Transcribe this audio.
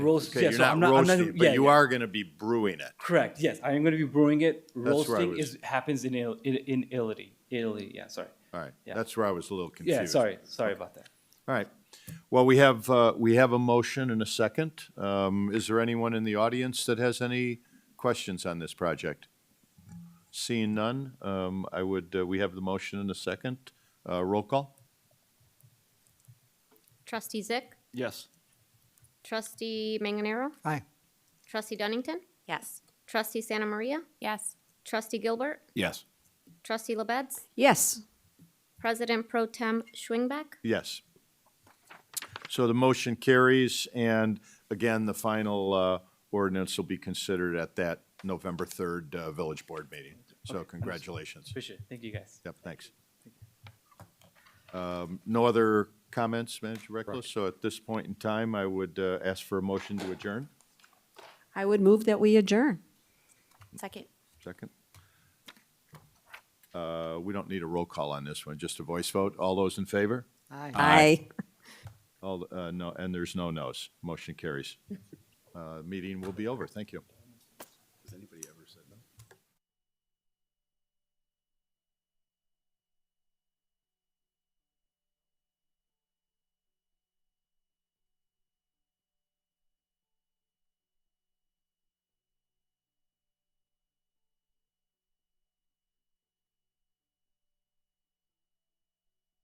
Roast, Okay, yeah, you're so I'm not not, I'm roasting, not, it, but yeah, you yeah. are going to be brewing it. Correct, yes, I am gonna be brewing it, where I roasting was- is, happens in Il, in, in Italy, Italy, yeah, sorry. All right, Yeah. that's where I was a little confused. Yeah, sorry, sorry about that. All right. Well, we have, uh, we have a motion and a second. Um, Is there anyone in the audience that has any questions on this project? Seeing none, um, I would, uh, we have the motion and a second. Uh, Roll call? Trustee Zick, Yes. Trustee Manganero, Aye. Trustee Dunnington, Yes. Trustee Santa Maria, Yes. Trustee Gilbert, Yes. Trustee Labeds, Yes. President Pro Tem Schwingback, Yes. So the motion carries, and again, the final uh, ordinance will be considered at that November 3rd uh, Village Board meeting. So congratulations. Appreciate it, thank you guys. Yep, thanks. Um, No other comments, Manager Reckless? So at this point in time, I would uh, ask for a motion to adjourn. I would move that we adjourn. Second. Second. Uh, We don't need a roll call on this one, just a voice vote. All those in favor? Aye. Aye. All, uh, no, and there's no no's. Motion carries. Uh, Meeting will be over. Thank you.